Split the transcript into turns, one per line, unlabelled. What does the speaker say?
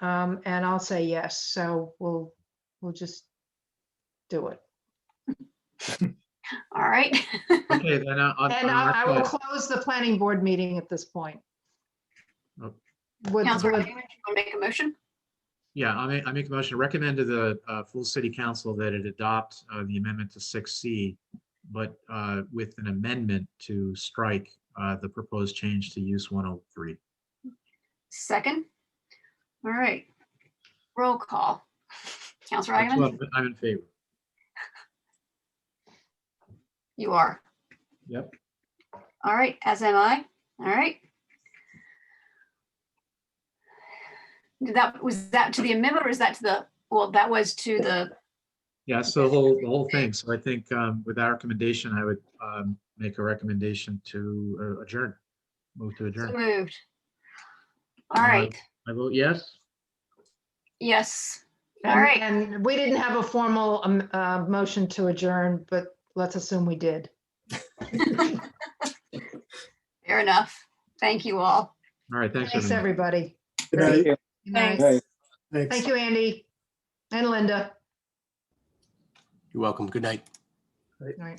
Um, and I'll say yes, so we'll, we'll just do it.
All right.
Okay, then uh, I- I-
And I I
I'll,
will
I'll,
close the planning board meeting at this point.
Oh.
Would-
Councilor
would-
Raymond, you want to make a motion?
yeah, I make, I make a motion to recommend to the uh, full city council that it adopt uh, the amendment to six C, but uh, with an amendment to strike uh, the proposed change to use one oh three.
Second? All right. Roll call. Counselor Agaman,
I'm I'm in favor.
you are.
Yep.
All right, as am I. All right. Did That, was that to the amendment or is that to the, well, that was to the,
Yeah, so the whole, the whole thing. So I think um, with that recommendation, I would um, make a recommendation to uh, adjourn. Move to
so
adjourn.
moved. All
Uh,
right,
I vote yes.
yes. All
and-
right.
And we didn't have a formal, um, uh, motion to adjourn, but let's assume we did.
Fair enough. Thank you all.
All right, thanks.
Thanks,
everyone.
everybody.
Good night.
Good night.
Thanks.
Thanks.
Thank you, Andy and Linda.
You're welcome. Good night.
All right.